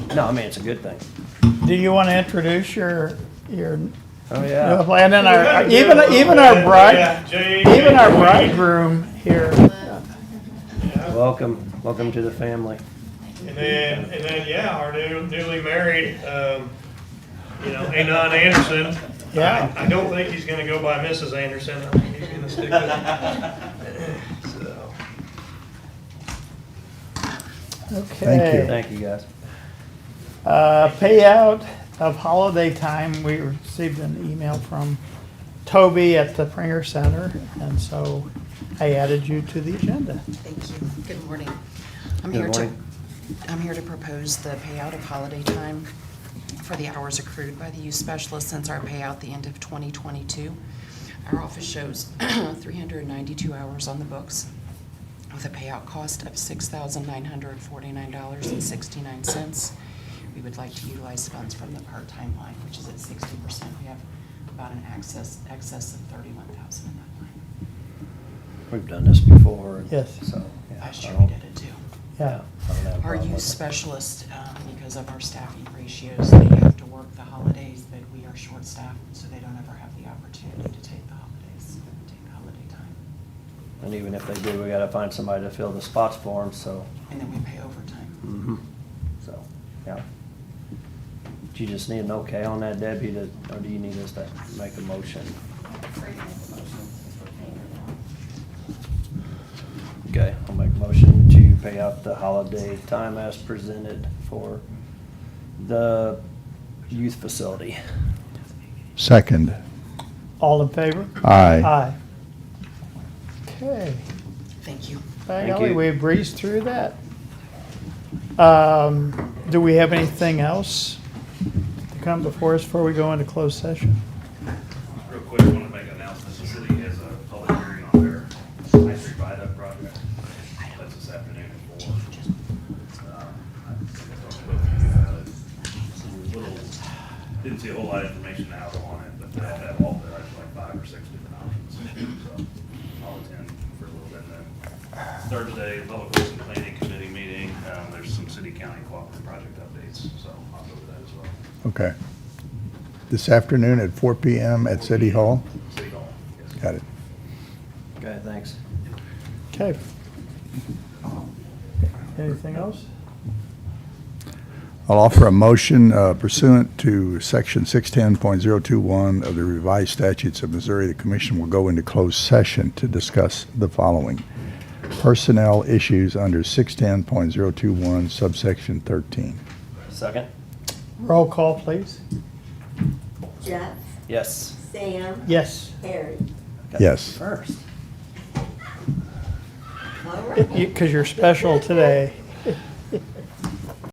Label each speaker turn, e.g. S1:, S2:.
S1: No, I mean, it's a good thing.
S2: Do you want to introduce your, your,
S1: Oh,
S2: and
S1: yeah.
S2: then our, even, even our bride, even our bridegroom here,
S1: Welcome, welcome to the family.
S3: And then, and then, yeah, our new, newly married, um, you know, Anon Anderson.
S2: yeah.
S3: I don't think he's gonna go by Mrs. Anderson. I think he's gonna stick with it. So,
S2: Okay.
S1: Thank you, guys.
S2: Uh, Payout of holiday time, we received an email from Toby at the Pringer Center, and so I added you to the agenda.
S4: Thank you. Good morning. I'm
S1: Good
S4: here to,
S1: morning.
S4: I'm here to propose the payout of holiday time for the hours accrued by the youth specialist since our payout the end of 2022. Our office shows 392 hours on the books with a payout cost of $6,949.69. We would like to utilize funds from the part-time line, which is at 60%. We have about an access, excess of 31,000 in that line.
S1: We've done this before.
S2: Yes.
S1: So. yeah,
S4: Last
S1: I
S4: year we
S1: don't-
S4: did it too.
S1: I
S2: Yeah.
S1: don't have a
S4: Our
S1: problem
S4: youth
S1: with it.
S4: specialists, um, because of our staffing ratios, they have to work the holidays, but we are short-staffed, so they don't ever have the opportunity to take the holidays, take the holiday time.
S1: And even if they do, we gotta find somebody to fill the spots for them, so.
S4: And then we pay overtime.
S1: mhm. So, yeah. Do you just need an okay on that, Debbie, to- or do you need us to make a motion? Okay, I'll make a motion to pay out the holiday time as presented for the youth facility.
S5: Second.
S2: All in favor?
S5: Aye.
S2: Aye. Okay,
S4: Thank you.
S2: by
S1: Thank
S2: golly,
S1: you.
S2: we breezed through that. Um, Do we have anything else to come before us before we go into closed session?
S6: Real quick, I want to make an announcement. The city has a public hearing on their High Street viaduct project. That's this afternoon at four. Um, I think I talked to both of you about it. Little, didn't see a whole lot of information out on it, but they have that all there, It's like five or six different options. So I'll attend for a little bit then. Thursday, Public Works and Planning Committee meeting. Um, There's some city-county cooperative project updates, so I'll go to that as well.
S5: Okay. This afternoon at 4 PM at City Hall?
S6: City Hall, yes.
S5: Got it.
S1: Okay, thanks.
S2: Okay. Anything else?
S5: I'll offer a motion uh, pursuant to Section 610.021 of the revised statutes of Missouri. The commission will go into closed session to discuss the following. Personnel issues under 610.021 subsection 13.
S1: Second?
S2: Roll call, please.
S7: Jeff,
S1: Yes.
S7: Sam,
S2: Yes.
S7: Harry.
S1: Okay.
S5: Yes.
S1: First.
S7: All right.
S2: Because you're special today.